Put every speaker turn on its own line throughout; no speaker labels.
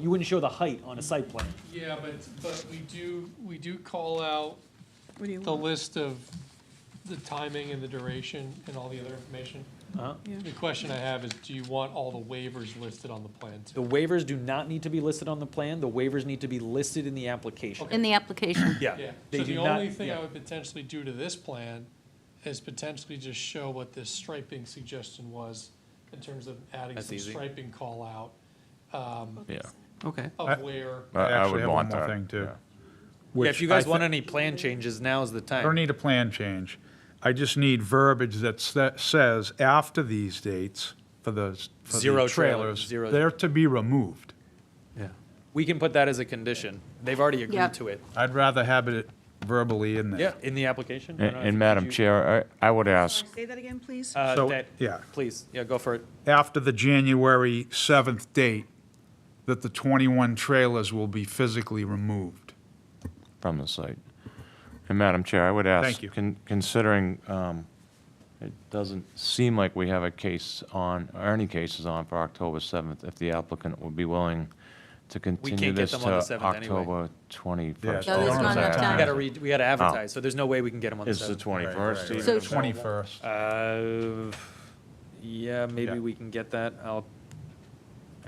You wouldn't show the height on a site plan.
Yeah, but, but we do, we do call out
What do you
the
want?
list of the timing and the duration and all the other information.
Uh-huh.
Yeah.
The question I have is, do you want all the waivers listed on the plan too?
The waivers do not need to be listed on the plan, the waivers need to be listed in the application.
Okay.
in the application.
Yeah,
Yeah.
so
They
the
do not.
only thing
yeah.
I would potentially do to this plan is potentially just show what this striping suggestion was in terms of adding
That's
some
easy.
striping call out
Yeah.
Okay.
I-
of where.
I- I
actually
would
have one
want
more
that.
thing, too.
yeah.
Yeah,
Which
if you
I
guys
thi-
want any plan changes, now's the
I don't
time.
need a plan change. I just need verbiage that sa- says after these dates for the, s- for the
Zero trailers,
trailers,
zero-
they're to be removed.
We can put that as a condition, they've already
Yeah.
agreed to it.
I'd rather have it verbally in there.
Yeah, in the application. I don't
And,
know if
and
you-
Madam
did you-
Chair, I, I would ask,
Say that again, please?
Uh,
So,
that-
yeah.
Please, yeah, go for it.
After the January 7th date, that the 21 trailers will be physically removed.
from the site, and Madam Chair, I would ask.
Thank you.
con- Considering, um, it doesn't seem like we have a case on, or any cases on for October 7th, if the applicant would be willing to continue
can't get
this
them on the
to
7th anyway.
October 21st.
Yeah,
Those don't have enough
We
time.
gotta read, we gotta advertise, so there's no way we can get them on the
It's the
seventh.
21st,
So-
even.
21st.
Uh, yeah, maybe
Yeah.
we can get that, I'll.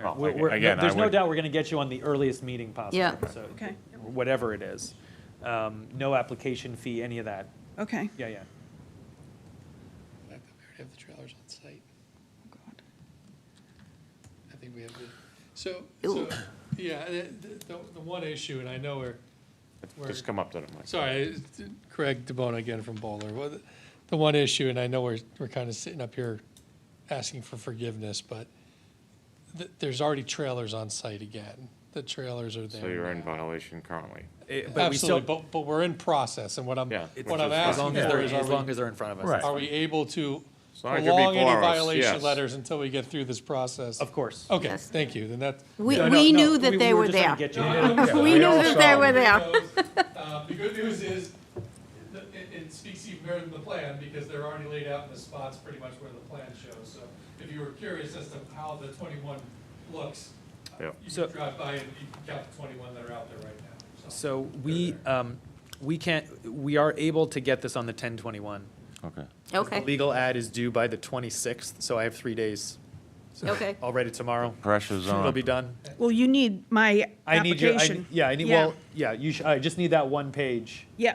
Well,
We're-
aga-
we're-
again, I
There's no
would-
doubt we're gonna get you on the earliest meeting possible.
Yeah.
so-
Okay.
Whatever it is. Um, no application fee, any of that.
Okay.
Yeah, yeah.
We already have the trailers on site.
God.
I think we have to, so,
Ew.
so, yeah, the, the, the one issue, and I know we're, we're,
Just come up to the mic.
sorry, it's Craig DeBona again from Bowler. Well, the- The one issue, and I know we're, we're kind of sitting up here asking for forgiveness, but th- there's already trailers on site again. The trailers are there.
So you're in
now.
violation currently.
Eh, But we
Absolutely,
still,
but, but we're in process, and what I'm,
Yeah, which
what I'm
is-
as long
asking
as
for
they're,
is
as
are
long
we,
as they're in front of us.
Right.
are we able to
As long as you're
prolong any
before us,
violation
yes.
letters until we get through this process?
Of course.
Okay,
Yes.
thank you, then that,
We,
Oh, No, no,
we
no,
knew that they were
just trying to
there.
get you-
We
we
knew
all
that they
saw
were
them.
there.
Uh, The good news is, th- it, it speaks even better than the plan, because they're already laid out in the spots pretty much where the plan shows. So if you were curious as to how the twenty-one looks, uh,
Yeah.
you
So-
can drive by and you can count the twenty-one that are out there right now, so.
So we, um, we can't, we are able to get this on the ten twenty-one.
Okay.
Okay,
The legal ad is due by the twenty-sixth, so I have three days.
okay.
Already tomorrow,
Pressure's on.
it'll be done.
Well, you need my
I need your, I-
application.
yeah, I need, well, yeah, you, sh- I just need that one page
Yeah,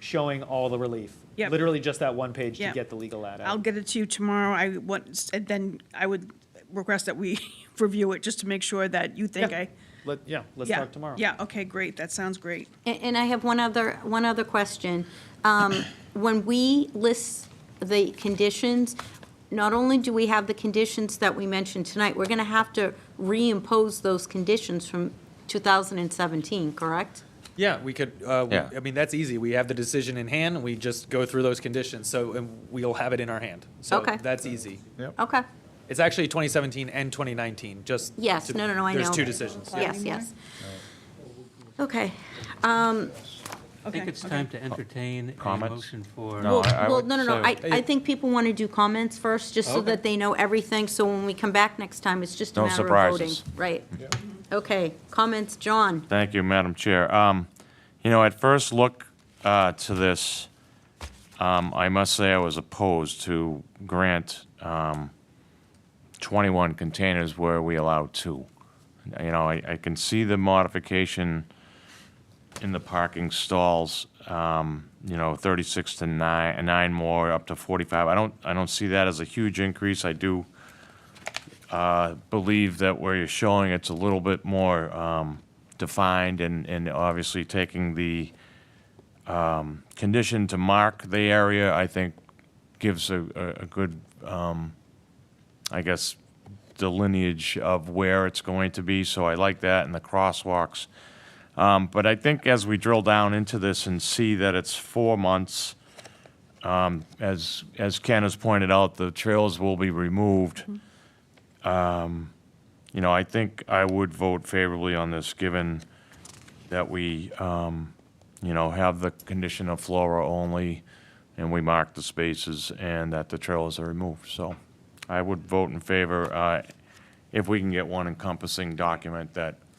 showing all the relief.
Yep.
Literally just that one page to
Yep.
get the legal ad out.
I'll get it to you tomorrow. I want, and then I would request that we review it just to make sure that you think
Yeah.
I.
Let, yeah, let's
Yeah,
talk tomorrow.
Yeah, okay, great. That sounds great.
And, and I have one other, one other question. Um, When we list the conditions, not only do we have the conditions that we mentioned tonight, we're going to have to reimpose those conditions from 2017, correct?
Yeah, we could, uh, we-
Yeah.
I mean, that's easy. We have the decision in hand, we just go through those conditions, so and we'll have it in our hand. So
Okay.
that's easy.
Okay,
It's actually 2017 and 2019, just.
yes,
to-
no, no, no, I know.
There's two decisions. yeah.
Yes, yes. Okay.
I think
Okay,
it's time to entertain a
Comments?
motion for.
No, I- I
Well,
would
no, no, no, I,
say-
I think people want to do comments first, just so that they know everything, so when we come back next time, it's just a
No
matter of voting.
surprises.
Right. Okay, comments, John?
Thank you, Madam Chair. Um, You know, at first look uh, to this, um, I must say I was opposed to grant um, 21 containers where we allow two. You know, I I can see the modification in the parking stalls, um, you know, 36 to 9, nine more, up to 45. I don't, I don't see that as a huge increase. I do uh, believe that where you're showing it's a little bit more um, defined and, and obviously taking the um, condition to mark the area, I think gives a, a, a good, um, I guess, the lineage of where it's going to be. So I like that and the crosswalks. Um, but I think as we drill down into this and see that it's four months, um, as, as Ken has pointed out, the trails will be removed. Um, You know, I think I would vote favorably on this, given that we, um, you know, have the condition of flora only, and we mark the spaces, and that the trails are removed. So I would vote in favor, uh, if we can get one encompassing document that